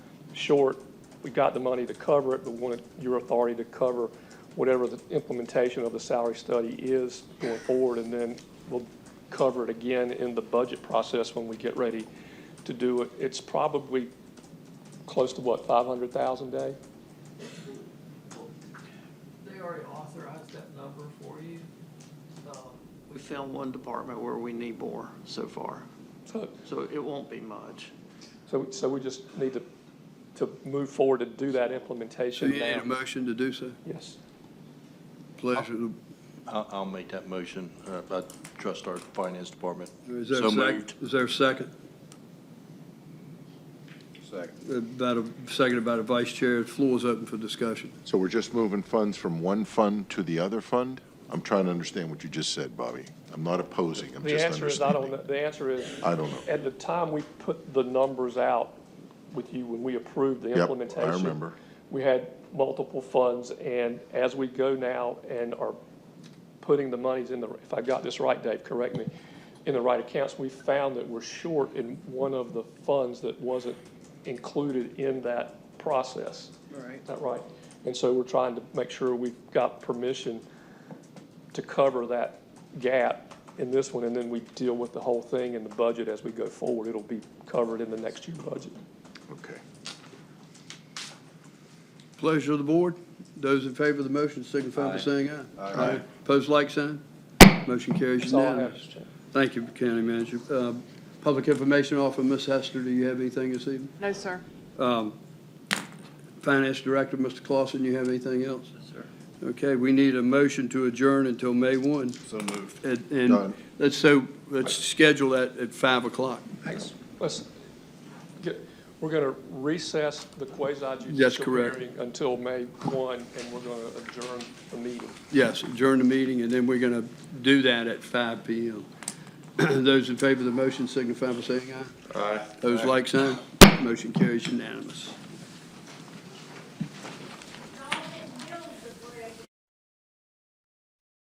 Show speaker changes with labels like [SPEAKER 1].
[SPEAKER 1] short. We've got the money to cover it, but want your authority to cover whatever the implementation of the salary study is going forward, and then we'll cover it again in the budget process when we get ready to do it. It's probably close to what, five hundred thousand, Dave?
[SPEAKER 2] They already authorized that number for you. Um, We found one department where we need more so far,
[SPEAKER 1] So,
[SPEAKER 2] so it won't be much.
[SPEAKER 1] so, so we just need to, to move forward to do that
[SPEAKER 3] So
[SPEAKER 1] implementation
[SPEAKER 3] you need a
[SPEAKER 1] now.
[SPEAKER 3] motion to do so?
[SPEAKER 1] Yes.
[SPEAKER 3] Pleasure. to-
[SPEAKER 4] I'll, I'll make that motion. Uh, I trust our finance department.
[SPEAKER 3] Is there a
[SPEAKER 4] So
[SPEAKER 3] second?
[SPEAKER 4] moved.
[SPEAKER 3] Is there a second?
[SPEAKER 5] Second.
[SPEAKER 3] About a, seconded by the vice chair. The Floor is open for discussion.
[SPEAKER 5] So we're just moving funds from one fund to the other fund? I'm trying to understand what you just said, Bobby. I'm not opposing, I'm
[SPEAKER 1] The
[SPEAKER 5] just
[SPEAKER 1] answer is, I don't,
[SPEAKER 5] understanding.
[SPEAKER 1] know. the answer is,
[SPEAKER 5] I don't know.
[SPEAKER 1] at the time we put the numbers out with you, when we approved the
[SPEAKER 5] Yep, I
[SPEAKER 1] implementation.
[SPEAKER 5] remember.
[SPEAKER 1] We had multiple funds, and as we go now and are putting the monies in the, if I got this right, Dave, correct me, in the right accounts, we found that we're short in one of the funds that wasn't included in that process.
[SPEAKER 2] Right.
[SPEAKER 1] Is that right? And so we're trying to make sure we've got permission to cover that gap in this one, and then we deal with the whole thing in the budget as we go forward. It'll be covered in the next year budget.
[SPEAKER 5] Okay.
[SPEAKER 3] Pleasure of the board. Those in favor of the motion signify by saying aye. Aye. Pose like sign. Motion carries
[SPEAKER 1] That's all I have,
[SPEAKER 3] unanimous.
[SPEAKER 1] Mr. Chairman.
[SPEAKER 3] Thank you, County Manager. Uh, Public information officer, Ms. Hester, do you have anything this evening?
[SPEAKER 6] No, sir.
[SPEAKER 3] Finance Director, Mr. Clausen, you have anything else? Sir. Okay, we need a motion to adjourn until May 1.
[SPEAKER 5] So moved.
[SPEAKER 3] And,
[SPEAKER 5] Done.
[SPEAKER 3] and let's, so, let's schedule that at 5 o'clock.
[SPEAKER 1] Let's, get, we're gonna recess the quasi-judicial
[SPEAKER 3] That's correct.
[SPEAKER 1] hearing until May one, and we're gonna adjourn the meeting.
[SPEAKER 3] Yes, adjourn the meeting, and then we're going to do that at 5 PM. Those in favor of the motion signify by saying aye. Aye. Those like sign. Motion carries unanimous.